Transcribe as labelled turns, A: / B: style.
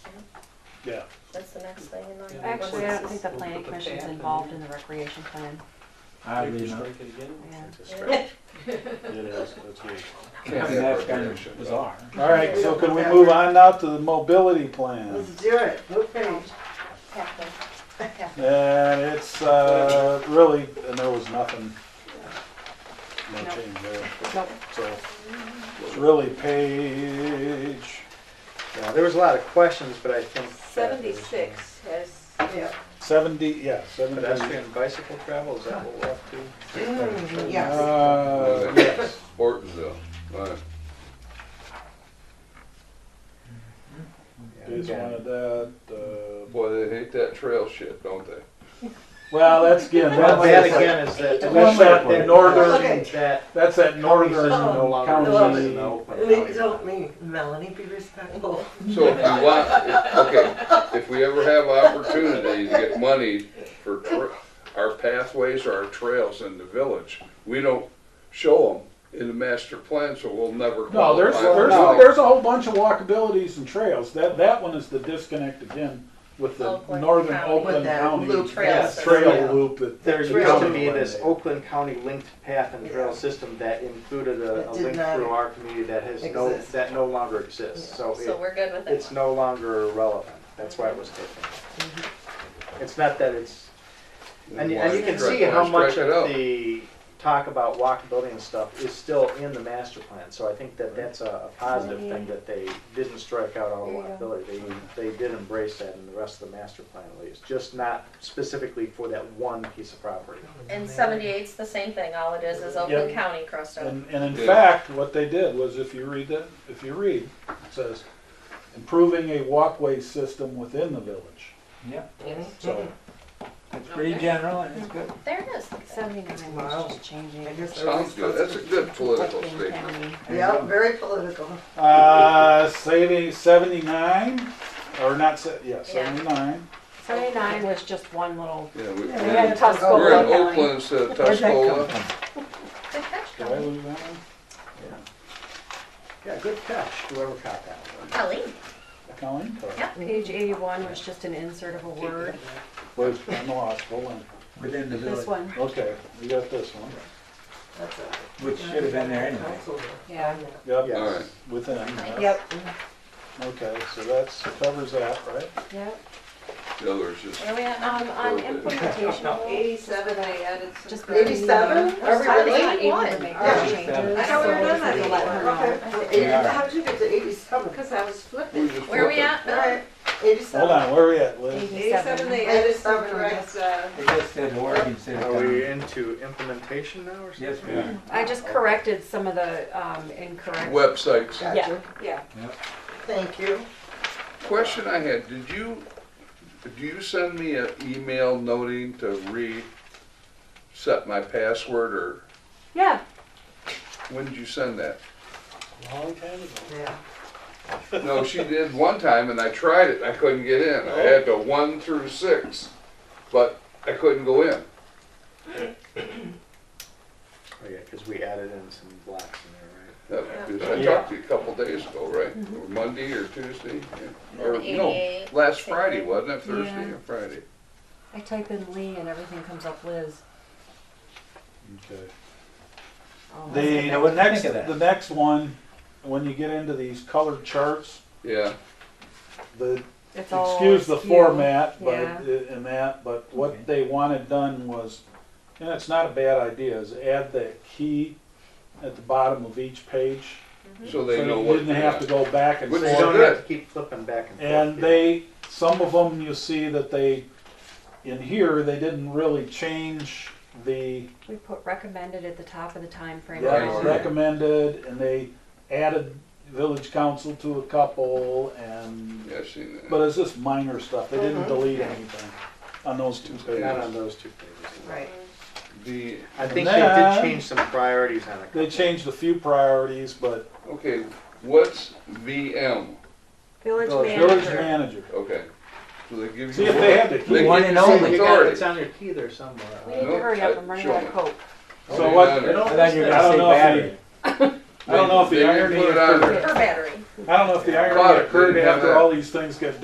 A: Yeah,
B: That's the next thing in line.
C: Actually, I don't think the
D: We'll
C: planning
D: put the
C: commission's
D: path in
C: involved
D: there.
C: in the recreation plan.
E: I
A: Take
E: agree,
A: your
E: no.
A: strike it again.
C: Yeah.
A: It's a strike. It is, that's good.
E: Yeah, that's kind of bizarre.
F: All right, so can we move on now to the mobility plan?
D: Let's do it, okay.
B: Halfway. Halfway.
F: And it's, uh, really, and there was nothing, no
C: Nope.
F: change there.
C: Nope.
F: So, it's really page,
G: Yeah, there was a lot of questions, but I think. that is-
B: Seventy-six has,
D: Yeah.
F: seventy, yeah, seventy.
G: Pedestrian bicycle travel, is that what we're up to?
D: Mm, Yes,
F: Uh, yes.
H: Ortonville, right.
F: Just wanted that, uh,
H: Boy, they hate that trail shit, don't they?
F: well, that's again,
G: Well, that
F: that's,
G: again is that.
F: That's that northern-
G: that northern- That.
F: that's that northern
G: no longer
F: county.
G: no, but
D: please help me, Melanie, be respectful.
H: So if you want, if- okay, if we ever have opportunity to get money for tra- our pathways or our trails in the village, we don't show them in the master plan, so we'll never.
F: No, there's,
H: qualify.
F: there's,
H: No.
F: there's a whole bunch of walkabilities and trails. That, that one is the disconnect again with the
B: Oakland
F: northern
B: County.
D: With
F: Oakland
D: that
F: County
D: loop.
B: Trail
F: trail,
B: system.
D: Yeah.
F: loop that.
G: There
F: that
G: used to
F: comes
G: be
F: one
G: this
F: day.
G: Oakland County linked path and trail system that included a,
D: That
G: a
D: did
G: link
D: not
G: through our community that has no,
D: exist.
G: that no longer exists. So
B: so
G: it,
B: we're good with
G: it's
B: it.
G: no longer relevant. That's why it was taken. It's not that it's, and you, and you can see
H: Why
G: how
H: strike
G: much
H: it out?
G: of the talk about walkability and stuff is still in the master plan. So I think that that's a, a positive thing that they didn't strike out all
B: There you go.
G: walkability. They, they did embrace that in the rest of the master plan at least, just not specifically for that one piece of property.
B: And seventy-eight's the same thing, all it is is Oakland
F: Yep.
B: County crossed over.
F: And, and in
H: Yeah.
F: fact, what they did was if you read that, if you read, it says, improving a walkway system within the village.
E: Yep,
F: So,
E: it's pretty general and it's good.
B: There it is.
C: Seventy-nine
D: Wow.
C: was just changing.
D: I guess I
H: Sounds
D: was
H: good, that's a good political
C: Oakland
H: statement.
C: County.
D: Yeah, very political.
F: uh, saving seventy-nine, or not, se- yeah,
B: Yeah.
F: seventy-nine.
C: Seventy-nine was just one little,
H: Yeah, we, we-
C: we had
H: we're
C: Tuscola
H: in
C: County.
H: Oakland, it's uh,
E: Where'd that come
H: Tuscola.
E: from?
B: Good catch,
F: Did I
B: Colleen.
F: lose that one?
G: Yeah, good catch, whoever caught that one.
B: Colleen.
F: Colleen?
B: Yeah.
C: Page eighty-one was just an insert of a word,
F: Where's, I'm lost, hold on.
E: Within the
C: this
E: village,
C: one,
F: Okay, we got this one.
D: That's a-
E: which should have been there anyway.
C: yeah.
F: Yep,
H: All right.
G: Yes.
F: within, uh,
C: Yep,
F: okay, so that's, covers that, right?
C: yep.
H: The others just.
B: Where we at now?
C: Um, on implementation rules,
I: Eighty-seven, I added some.
C: just.
I: corrections.
D: 87?
C: Are we really?
B: Eighty
C: able
B: one.
C: to make
D: Yeah.
C: those changes?
D: I
C: so
D: thought we were
C: if
D: done
C: you
D: at
C: let her know.
D: eighty-one.
E: We
D: Okay.
E: are.
D: How did you get to eighty-seven?
I: Because I was
H: we
I: flipping.
H: just
B: Where we
H: flip it.
B: at?
D: All
B: now?
D: right,
F: Hold
D: eighty-seven.
F: on, where are we at, Liz?
I: Eighty-seven, they
D: Eighty
I: added some
D: seven,
I: correct, uh,
E: It just said Oregon City.
G: Are we into implementation now or something?
E: Yes, we are.
C: I just corrected some of the, um, incorrect.
H: Websites.
D: Gotcha.
I: yeah.
D: Thank you.
H: Question I had, did you, do you send me an email noting to reset my password or
C: Yeah,
H: when did you send that?
A: Long time ago.
D: Yeah.
H: No, she did one time and I tried it, and I couldn't get in. I had the one through six, but I couldn't go in.
G: Oh, yeah, because we added in some blocks in
H: That- because Uh, I talked to you a couple days ago, right? Or Monday or Tuesday? yeah. Or no,
B: Eighty-eight.
H: last Friday, wasn't it? Thursday
C: Yeah.
H: or Friday?
C: I type in Lee and everything comes up Liz.
F: Okay.
C: Oh, that's
F: The,
E: I
F: the
E: wouldn't
F: next,
E: think of that.
F: the next one, when you get into these colored charts,
H: Yeah,
F: the,
C: It's all
F: excuse the
C: skewed.
F: format, but, uh,
C: Yeah.
F: and that, but
E: Okay.
F: what they wanted done was, and it's not a bad idea, is add that key at the bottom of each page.
H: so
F: So
H: they know
F: you
H: what.
F: didn't have to go back and
H: Which
F: forth.
H: is
G: there, right? You don't
H: good.
G: have to keep flipping back and forth.
F: And
G: yeah.
F: they, some of them you see that they, in here, they didn't really change the
C: We put recommended at the top of the time frame.
F: yeah,
H: Right.
F: recommended, and they added village council to a couple, and,
H: Yeah, I've seen that.
F: but it's just minor stuff, they didn't
D: Mhm.
F: delete anything on those two
G: Not
F: pages.
G: on those two pages.
D: Right.
H: The,
G: I think they
F: Then-
G: did change some priorities on a couple.
F: They changed a few priorities, but
H: okay, what's VM?
C: Village
F: village
C: manager.
F: manager,
H: Okay. So they give you.
F: see if they had the
H: They
F: key.
E: One
H: give
E: and
H: you
E: only.
H: some
G: You got it,
H: authority.
G: It's on your key there somewhere.
C: We need to
H: Nope,
C: hurry up
H: I-
C: and run
H: show
C: out
H: me.
C: of coke.
F: So what, I
H: They
F: don't
E: I thought you were gonna
F: I
E: say
F: don't know if
E: battery.
F: know if
H: They
F: the
H: didn't
F: irony
H: put it on
F: occurred,
H: there.
B: Her battery.
F: I don't know if the irony
H: Caught it,
F: occurred
H: didn't have
F: after
H: that.
F: all these things got